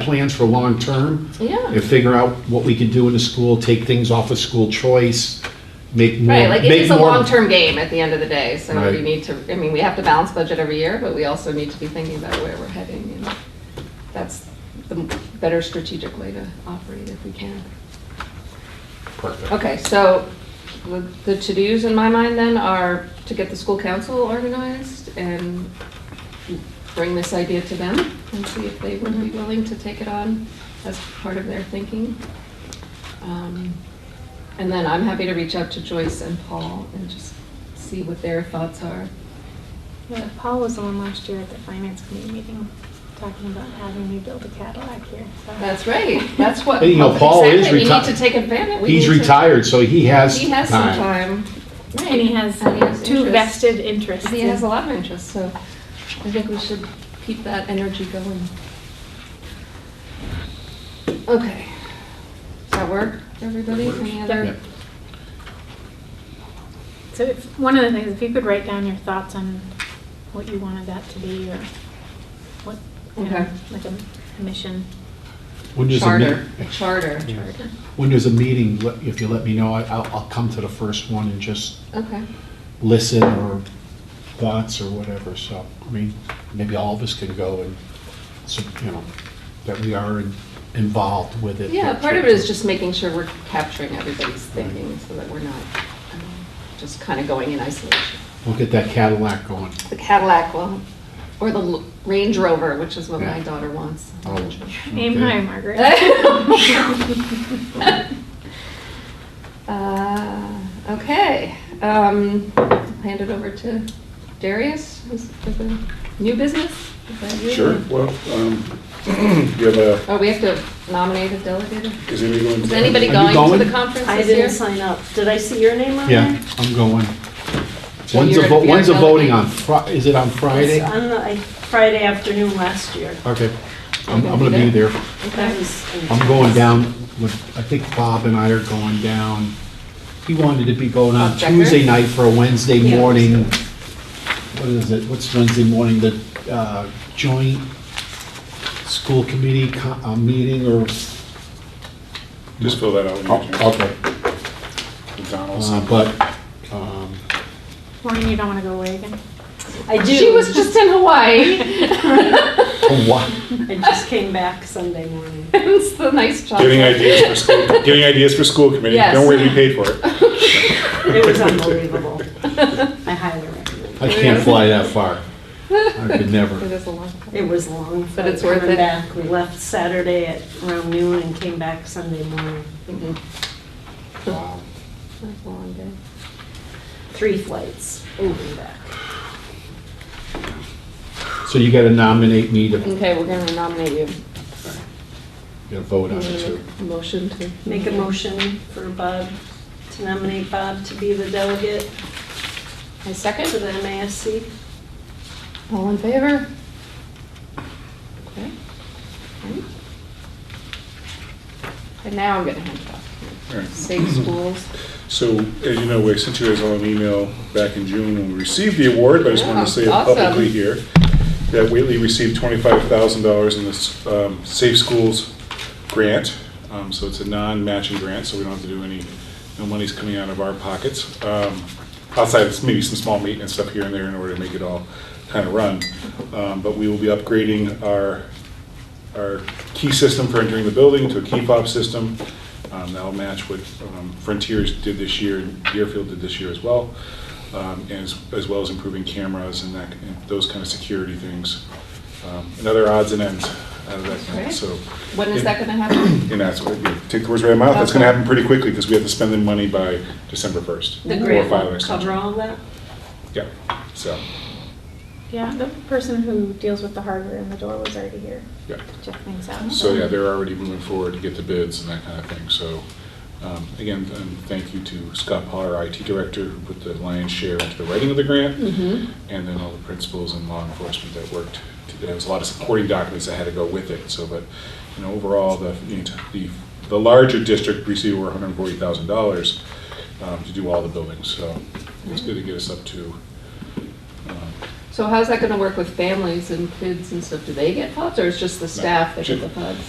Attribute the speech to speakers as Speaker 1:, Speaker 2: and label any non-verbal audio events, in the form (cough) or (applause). Speaker 1: plans for long-term.
Speaker 2: Yeah.
Speaker 1: And figure out what we can do in the school, take things off of school choice, make more.
Speaker 2: Right, like it
Speaker 1: make
Speaker 2: is a
Speaker 1: more-
Speaker 2: long-term game at the end of the day, so
Speaker 1: Right.
Speaker 2: we need to, I mean, we have to balance budget every year, but we also need to be thinking about where we're heading, and that's the better strategic way to operate if we can.
Speaker 1: Perfect.
Speaker 2: Okay, so the- the to-dos in my mind then are to get the school council organized and bring this idea to them and see if they would be willing to take it on as part of their thinking. Um, And then I'm happy to reach out to Joyce and Paul and just see what their thoughts are.
Speaker 3: Yeah, Paul was the one last year at the finance committee meeting talking about having me build a Cadillac here. so-
Speaker 2: That's right, that's what.
Speaker 1: And, you know, Paul is
Speaker 2: Exactly, We
Speaker 1: reti-
Speaker 2: need to take advantage. we
Speaker 1: He's
Speaker 2: need to-
Speaker 1: retired, so he has
Speaker 2: He has some
Speaker 1: time.
Speaker 2: time.
Speaker 3: And he has
Speaker 2: And he has
Speaker 3: two
Speaker 2: interest.
Speaker 3: vested interests.
Speaker 2: He has a
Speaker 3: in-
Speaker 2: lot of interest, so I think we should keep that energy going. Okay. Does that work, everybody? Any
Speaker 1: Yep.
Speaker 2: other?
Speaker 3: So if, one of the things, if you could write down your thoughts on what you wanted that to be or what, you know,
Speaker 2: Okay.
Speaker 3: like a mission.
Speaker 1: When there's a
Speaker 2: Charter,
Speaker 1: meeting,
Speaker 2: a charter.
Speaker 1: when there's a meeting, let- if you let me know, I- I'll, I'll come to the first one and just
Speaker 2: Okay,
Speaker 1: listen or thoughts or whatever, so, I mean, maybe all of us can go and, so, you know, that we are in- involved with it.
Speaker 2: yeah, part of it is just making sure we're capturing everybody's thinking so that we're not um, just kind of going in isolation.
Speaker 1: We'll get that Cadillac going.
Speaker 2: The Cadillac will, or the L- Range Rover, which is what my
Speaker 1: Yeah.
Speaker 2: daughter wants.
Speaker 1: Oh.
Speaker 2: Range Rover.
Speaker 3: Aim
Speaker 1: Okay.
Speaker 3: high,
Speaker 2: (laughs)
Speaker 3: Margaret.
Speaker 2: Uh, Okay, um, hand it over to Darius, who's for the new business? Is that you?
Speaker 4: Sure, well, um, (clears throat) you have a,
Speaker 2: Oh, we have to nominate a delegate?
Speaker 4: is anybody going?
Speaker 2: Is anybody
Speaker 1: you
Speaker 2: going to
Speaker 1: going?
Speaker 2: the conference
Speaker 5: I
Speaker 2: this
Speaker 5: didn't
Speaker 2: year?
Speaker 5: sign up. Did I see your name on there?
Speaker 1: Yeah, I'm going.
Speaker 2: So
Speaker 1: When's the,
Speaker 2: you're-
Speaker 1: vo-
Speaker 2: you're
Speaker 1: when's the voting on,
Speaker 2: delegating.
Speaker 1: Fri- is it on Friday?
Speaker 5: It's on the- I- Friday afternoon last year.
Speaker 2: uh,
Speaker 1: Okay, I'm, I'm gonna be there.
Speaker 5: I
Speaker 2: Okay.
Speaker 5: was-
Speaker 1: I'm going down with, I think Bob and I are going down. He wanted to be going on
Speaker 2: Bob Becker?
Speaker 1: Tuesday night for a Wednesday
Speaker 5: Yeah.
Speaker 1: morning. What is it, what's Wednesday morning, the, uh, joint school committee co- uh, meeting or?
Speaker 4: Just fill that out. when you
Speaker 1: Oh,
Speaker 4: do.
Speaker 1: Okay,
Speaker 4: McDonald's.
Speaker 1: uh, but, um, (laughs)
Speaker 3: Maureen, you don't want to go away again?
Speaker 5: I do.
Speaker 2: She was just in Hawaii. (laughs)
Speaker 1: what?
Speaker 5: I just came back Sunday morning.
Speaker 2: It's the nice job.
Speaker 4: Getting ideas
Speaker 2: (laughs)
Speaker 4: for school, getting ideas for school committee.
Speaker 2: Yes.
Speaker 4: Don't worry, we paid for it.
Speaker 5: It
Speaker 2: (laughs)
Speaker 5: was unbelievable. I highly recommend
Speaker 1: I can't fly that far. I could
Speaker 2: It (laughs)
Speaker 1: never.
Speaker 2: is a long
Speaker 5: it. It was long,
Speaker 2: But
Speaker 5: but
Speaker 2: it's worth
Speaker 5: coming
Speaker 2: it.
Speaker 5: back. We left Saturday at around noon and came back Sunday morning.
Speaker 2: Mhm.
Speaker 1: Wow.
Speaker 2: It's a long day.
Speaker 5: Three flights over and back.
Speaker 1: So you gotta nominate me to
Speaker 2: Okay, we're gonna nominate you.
Speaker 1: get a vote
Speaker 2: I'm
Speaker 1: on
Speaker 2: gonna
Speaker 1: it too.
Speaker 2: make a Motion to.
Speaker 5: Make a motion for Bob, to nominate Bob to be the delegate
Speaker 2: I
Speaker 5: to
Speaker 2: second.
Speaker 5: the MASC.
Speaker 2: All in favor? Okay. Great. And now I'm getting handcuffed.
Speaker 4: All right.
Speaker 2: Safe schools.
Speaker 4: So, as you know, we sent you guys all an email back in June when we received the award, but I just wanted
Speaker 2: Yeah,
Speaker 4: to say it
Speaker 2: awesome.
Speaker 4: publicly here, that Whately received twenty-five thousand dollars in this um, Safe Schools grant. Um, So it's a non-matching grant, so we don't have to do any, no money's coming out of our pockets. Um, Outside, of maybe some small maintenance stuff here and there in order to make it all kind of run. Um, But we will be upgrading our our key system for entering the building to a key fob system. Um, That'll match what um, Frontiers did this year, and Deerfield did this year as well, um, and as as well as improving cameras and that, and those kind of security things. Um, And other odds and ends out of that, grant,
Speaker 2: Okay.
Speaker 4: so.
Speaker 2: When is that gonna happen?
Speaker 4: And that's, what- yeah, take the words right out of my mouth, that's gonna happen pretty quickly, because we have to spend the money by December 1st.
Speaker 5: The
Speaker 4: or
Speaker 5: grant
Speaker 4: file an
Speaker 5: will
Speaker 4: extension.
Speaker 5: cover all that?
Speaker 4: Yeah, so,
Speaker 3: Yeah, the person who deals with the hardware in the door was already here
Speaker 4: yeah.
Speaker 3: to check things out.
Speaker 4: So, yeah, they're already moving forward to get the bids and that kind of thing, so, um, again, and thank you to Scott Potter, our IT director, who put the lion's share into the writing of the grant, and then all the principals and law enforcement that worked, to- there was a lot of supporting documents that had to go with it, so, but, you know, overall, the, you know, the, the larger district received over hundred and forty thousand dollars um, to do all the buildings, so it's good to get us up to, um,
Speaker 2: So how's that gonna work with families and kids and stuff? Do they get pods or it's just the staff that get the pods?